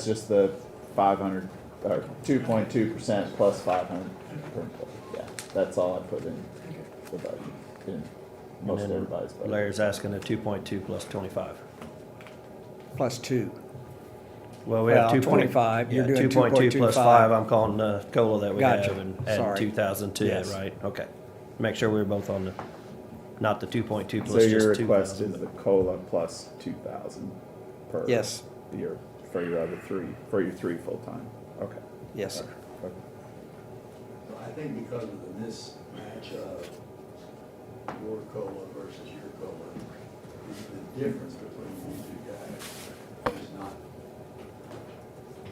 It's just the five hundred, or two point two percent plus five hundred per employee, yeah, that's all I put in the budget, in And most then everybody's budget. Larry's asking the two point two plus twenty-five. plus two. Well, we have two Well, 25, you're Two doing point two plus 2.25. five, I'm calling the COLA that we Gotcha. have and adding Sorry. two thousand to it, Yes. right? Okay. Make sure we're both on the, not the two point two So plus your just two request is thousand. the COLA plus two thousand per. Yes. Year, for your other three, for your three full-time, okay. Yes, sir. Okay. So I think because of the mismatch of your COLA versus your COLA, the- the difference between these two guys is not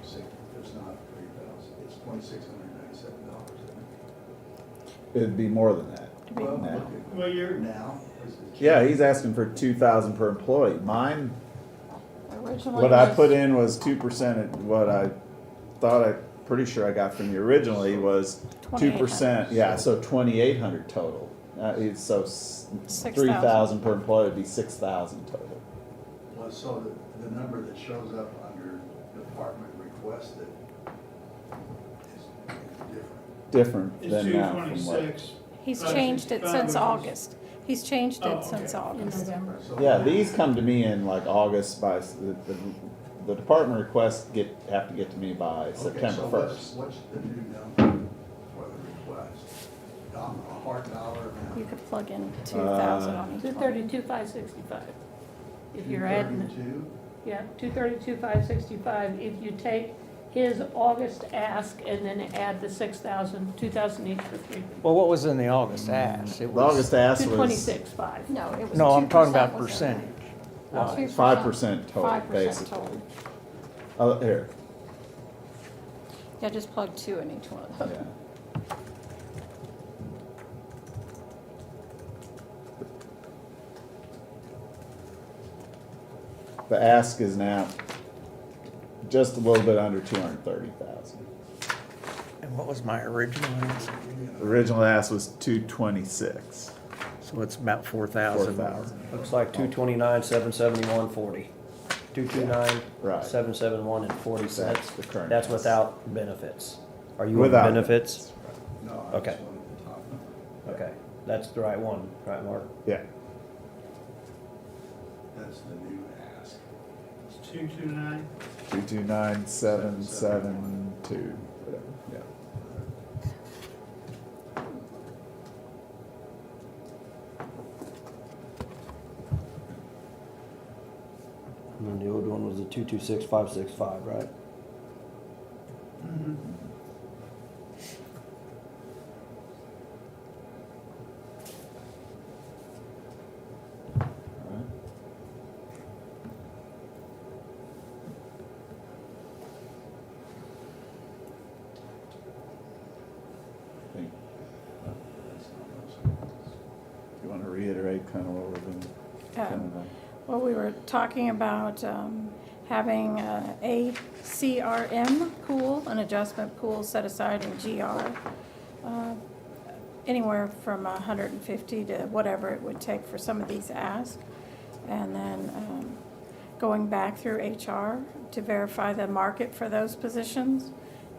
six, it's not three thousand, it's twenty-six hundred ninety-seven dollars. It'd be more than that. Well, now. look at- Well, you're. Now. is the- Yeah, he's asking for two thousand per employee, mine, Originally, what I was- put in was two percent, what I thought I, pretty sure I got from you originally was two 2%, percent, yeah, so twenty-eight hundred total. Uh, it's so Six three thousand per employee would be six thousand total. Well, so the, the number that shows up under department requested is, is different. Different It's than two now from what. twenty-six. He's Uh, changed it since 65 August. He's changed Oh, it since okay. August. So Yeah, now- these come to me in like August by, s- the, the, the department requests get, have to get to me by Okay, September so what's- first. What's the new number for the request? Dom- A hard dollar You amount? could plug in two thousand Uh, on each Two one. thirty-two, five sixty-five. If you're adding, 232? yeah, two thirty-two, five sixty-five, if you take his August ask and then add the six thousand, two thousand each for three. Well, what was in the August ask? It The was August ask Two was twenty-six, five. No, it was. No, I'm talking 2% about was in there. percentage. Oh, 2%. five percent total, 5% basically. total. Oh, here, Yeah, just plug two in each one of yeah. them. The ask is now just a little bit under two hundred and thirty thousand. And what was my original ask? Original ask was two twenty-six. So it's about four thousand. 4,000. Looks like two twenty-nine, seven seventy-one, forty. Two two Right. nine, seven seven one and forty That's cents. the current That's price. without benefits. Are you on Without benefits? No, I just Okay. wanted the top number. Okay, that's the right one, right, Mark? Yeah, That's the new ask. It's two-two-nine, two two nine seven seven two, whatever, yeah. And then the old one was the two-two-six, five-six-five, right? Alright. Think- That's not much. You wanna reiterate kind of what we've been, kind of, Well, we were talking about um, having uh, a CRM pool, an adjustment pool set aside in GR, uh, anywhere from 150 to whatever it would take for some of these asks. And then um, going back through HR to verify the market for those positions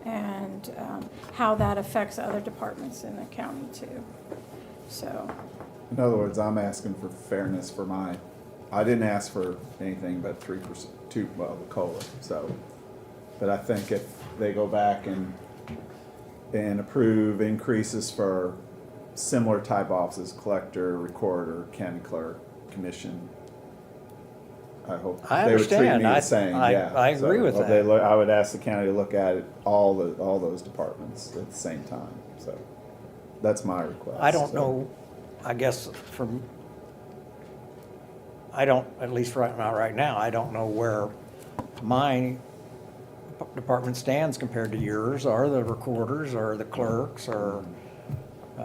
and um, how that affects other departments in the county too. So, in other words, I'm asking for fairness for my, I didn't ask for anything but three percent, two, well, the COLA, so. But I think if they go back and, and approve increases for similar type offices, collector, recorder, county clerk, commission, I hope I they would treat me understand. I- the same, I- yeah. I agree So, with well, they that. look- I would ask the county to look at it, all the, all those departments at the same time, so. That's my request. I don't so. know, I guess from, I don't, at least right now, right now, I don't know where my department stands compared to yours, or the recorders, or the clerks, or uh,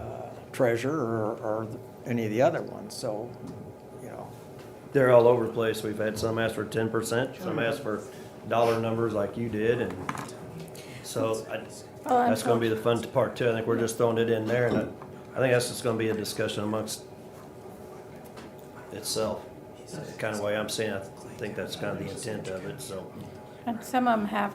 treasurer, or, or any of the other ones, so, you know. They're all over the place. We've had some ask for ten percent, some ask for dollar numbers like you did, and so I, well, I'm that's gonna be talking- the fun part too. I think we're just throwing it in there, and I, I think that's just gonna be a discussion amongst itself. Kind of way I'm seeing, it. I think that's kind of the intent of it, so. and some of them have